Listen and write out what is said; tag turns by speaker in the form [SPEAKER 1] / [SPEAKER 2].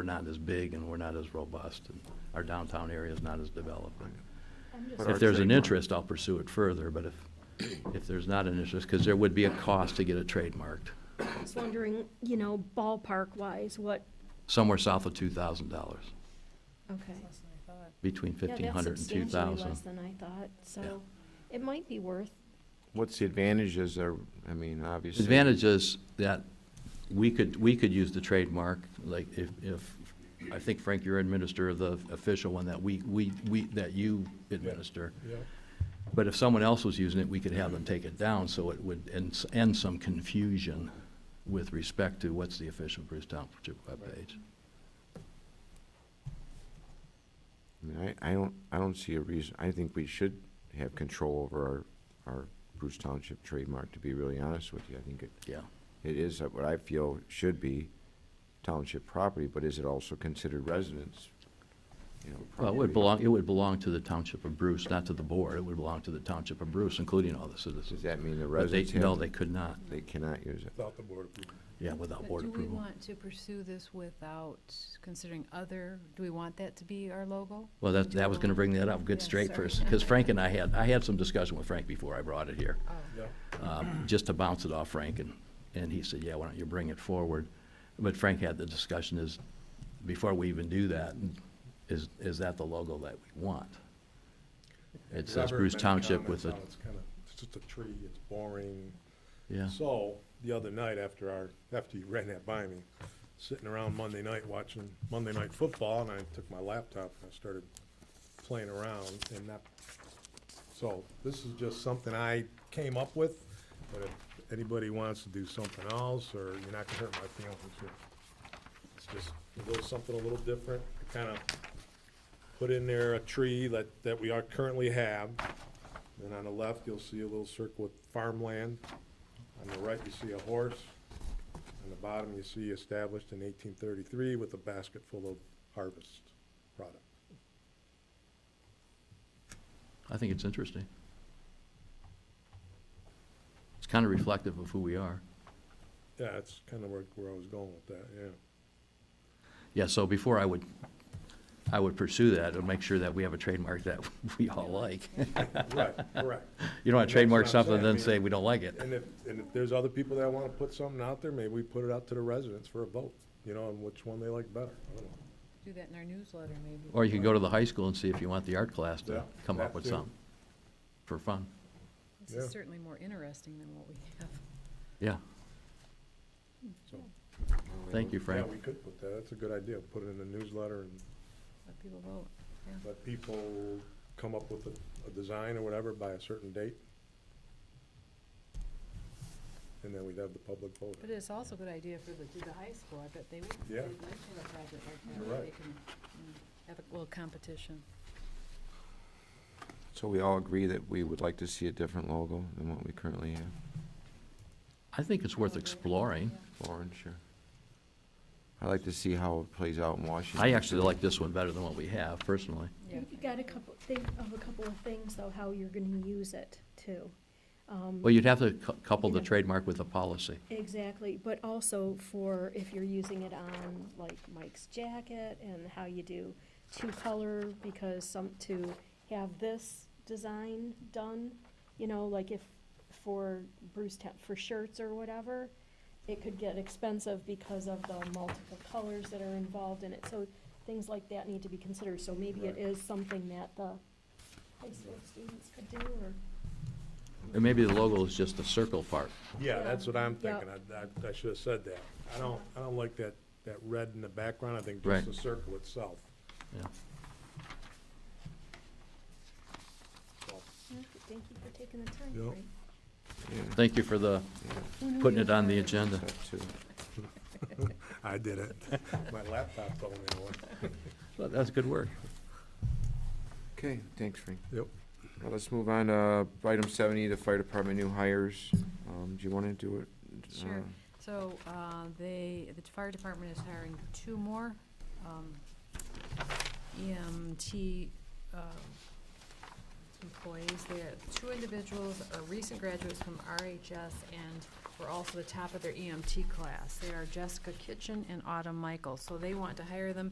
[SPEAKER 1] we're not as big and we're not as robust, and our downtown area is not as developed. And
[SPEAKER 2] But our
[SPEAKER 1] If there's an
[SPEAKER 2] trademark-
[SPEAKER 1] interest, I'll pursue it further, but if, if there's not an interest, because there would be a cost to get it trademarked,
[SPEAKER 3] I was wondering, you know, ballpark-wise, what,
[SPEAKER 1] somewhere south of two thousand dollars,
[SPEAKER 3] okay.
[SPEAKER 1] between fifteen hundred and two
[SPEAKER 3] Yeah, that's substantially
[SPEAKER 1] thousand.
[SPEAKER 3] less than I thought,
[SPEAKER 1] Yeah.
[SPEAKER 3] so it might be worth,
[SPEAKER 2] What's the advantages are, I mean, obviously.
[SPEAKER 1] Advantage is that we could, we could use the trademark, like if, if, I think Frank, you're administer of the official one that we, we, we, that you administer. But if someone else was using it, we could have them take it down, so it would end, end some confusion with respect to what's the official Bruce Township webpage.
[SPEAKER 2] I mean, I, I don't, I don't see a reason, I think we should have control over our, our Bruce Township trademark, to be really honest with you. I think it,
[SPEAKER 1] Yeah,
[SPEAKER 2] it is what I feel should be township property, but is it also considered residence? You know,
[SPEAKER 1] well, it
[SPEAKER 2] property?
[SPEAKER 1] would belong, it would belong to the Township of Bruce, not to the board, it would belong to the Township of Bruce, including all the
[SPEAKER 2] Does
[SPEAKER 1] citizens.
[SPEAKER 2] that mean the
[SPEAKER 1] But they,
[SPEAKER 2] residents
[SPEAKER 1] no,
[SPEAKER 2] have,
[SPEAKER 1] they could not,
[SPEAKER 2] they cannot use it?
[SPEAKER 4] Without the board approval.
[SPEAKER 1] yeah, without
[SPEAKER 5] But
[SPEAKER 1] board
[SPEAKER 5] Do we
[SPEAKER 1] approval.
[SPEAKER 5] want to pursue this without considering other, do we want that to be our logo?
[SPEAKER 1] Well, that,
[SPEAKER 5] Do
[SPEAKER 1] that
[SPEAKER 5] you
[SPEAKER 1] was gonna
[SPEAKER 5] want-
[SPEAKER 1] bring that up, good
[SPEAKER 5] Yeah,
[SPEAKER 1] straight
[SPEAKER 5] sorry.
[SPEAKER 1] first, because Frank and I had, I had some discussion with Frank before I brought it here,
[SPEAKER 5] Oh,
[SPEAKER 4] Yeah.
[SPEAKER 1] um, just to bounce it off Frank, and, and he said, yeah, why don't you bring it forward? But Frank had the discussion is, before we even do that, is, is that the logo that we want? It says Bruce Township with a,
[SPEAKER 4] It's kind of, it's just a tree, it's boring.
[SPEAKER 1] yeah,
[SPEAKER 4] So, the other night after our, after you ran that by me, sitting around Monday night watching Monday Night Football, and I took my laptop and I started playing around and that, so this is just something I came up with, but if anybody wants to do something else, or you're not gonna hurt my feelings here. It's just a little, something a little different, kind of put in there a tree that, that we are currently have. Then on the left, you'll see a little circle with farmland. On the right, you see a horse. On the bottom, you see established in eighteen thirty-three with a basket full of harvest product.
[SPEAKER 1] I think it's interesting. It's kind of reflective of who we are.
[SPEAKER 4] Yeah, that's kind of where, where I was going with that, yeah.
[SPEAKER 1] Yeah, so before I would, I would pursue that, and make sure that we have a trademark that we all like.
[SPEAKER 4] Right, correct.
[SPEAKER 1] You don't want
[SPEAKER 4] That's
[SPEAKER 1] to trademark
[SPEAKER 4] what I'm
[SPEAKER 1] something and
[SPEAKER 4] saying.
[SPEAKER 1] then say we don't like it.
[SPEAKER 4] And if, and if there's other people that want to put something out there, maybe we put it out to the residents for a vote, you know, on which one they like better. I don't know.
[SPEAKER 5] do that in our newsletter maybe.
[SPEAKER 1] Or you can go to the high school and see if you want the art class
[SPEAKER 4] Yeah,
[SPEAKER 1] to come up
[SPEAKER 4] that
[SPEAKER 1] with
[SPEAKER 4] too.
[SPEAKER 1] something for fun.
[SPEAKER 5] This is
[SPEAKER 4] yeah.
[SPEAKER 5] certainly more interesting than what we have.
[SPEAKER 1] Yeah,
[SPEAKER 4] So,
[SPEAKER 1] thank you, Frank.
[SPEAKER 4] Yeah, we could put that, that's a good idea, put it in the newsletter and
[SPEAKER 5] Let people vote.
[SPEAKER 4] let people come up with a, a design or whatever by a certain date. And then we'd have the public vote.
[SPEAKER 5] But it's also a good idea for the, do the high school. I bet they would, they'd
[SPEAKER 4] Yeah.
[SPEAKER 5] like to have a project like that.
[SPEAKER 4] You're
[SPEAKER 5] where
[SPEAKER 4] right.
[SPEAKER 5] They can mm, have a little competition.
[SPEAKER 2] So we all agree that we would like to see a different logo than what we currently have?
[SPEAKER 1] I think it's worth exploring.
[SPEAKER 2] Orange, sure. I'd like to see how it plays out in Washington.
[SPEAKER 1] I actually like this one better than what we have personally.
[SPEAKER 5] Yeah.
[SPEAKER 3] you got a couple, think of a couple of things, though, how you're gonna use it, too. Um,
[SPEAKER 1] Well, you'd have to cou- couple the
[SPEAKER 3] Yeah.
[SPEAKER 1] trademark with a policy.
[SPEAKER 3] Exactly, but also for if you're using it on like Mike's jacket and how you do two-color, because some, to have this design done, you know, like if, for Bruce Town, for shirts or whatever, it could get expensive because of the multiple colors that are involved in it, so things like that need to be considered, so maybe it
[SPEAKER 4] Right.
[SPEAKER 3] is something that the high school students could do, or,
[SPEAKER 1] And maybe the logo is just the circle part.
[SPEAKER 4] Yeah, that's what I'm
[SPEAKER 3] Yeah.
[SPEAKER 4] thinking, I, I, I should have said that. I don't, I don't like that, that red in the background, I think
[SPEAKER 1] Right.
[SPEAKER 4] just the circle itself.
[SPEAKER 1] Yeah.
[SPEAKER 4] So,
[SPEAKER 3] thank you for taking the time,
[SPEAKER 4] Yep.
[SPEAKER 3] Frank.
[SPEAKER 2] Yeah,
[SPEAKER 1] Thank you for the, putting it on the agenda.
[SPEAKER 2] that too.
[SPEAKER 4] I did it. My laptop told me what.
[SPEAKER 1] Well, That's good work.
[SPEAKER 2] Okay, thanks, Frank.
[SPEAKER 4] Yep.
[SPEAKER 2] Now let's move on to item seventy, the fire department new hires. Um, do you wanna do it?
[SPEAKER 5] Sure.
[SPEAKER 2] Uh,
[SPEAKER 5] So, uh, they, the fire department is hiring two more, E um, EMT, uh, employees. They're two individuals are recent graduates from RHS and were E also the top of their EMT class. They are Jessica Kitchen and Autumn Michael. So they want to hire them